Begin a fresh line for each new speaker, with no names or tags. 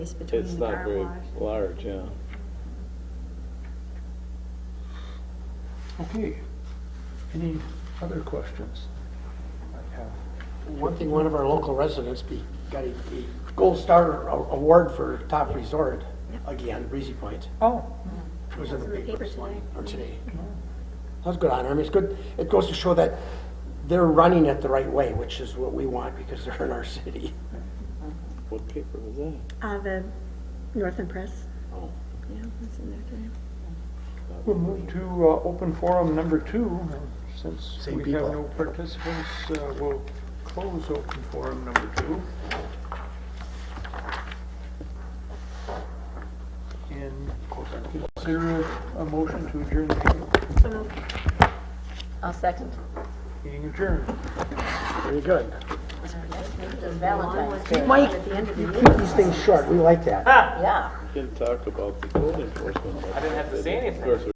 space between
It's
the
not
Mm, car
very
wash.
large, yeah.
Okay. Any other questions? I have.
One thing, one of our local residents be, got a, a Gold Star a- award for top resort again, Breezy Point.
Oh, Mm-hmm.
It was in
It's
the
in the
paper
paper
this
today.
morning, or today. That's good honor. I mean, it's good, it goes to show that they're running it the right way, which is what we want because they're in our city.
What paper was that?
Uh, the Northern Press,
Oh,
yeah, that's in there today.
we'll move to uh, open forum number two. and Since
Same
we have
people.
no participants, uh, we'll close open forum number two. And consider a motion to adjourn the meeting.
I'll second.
Meeting adjourned.
Very good.
It's Valentine's Day.
Mike, you keep these things short. We like that.
Yeah.
Didn't talk about the code enforcement. I didn't have to say anything.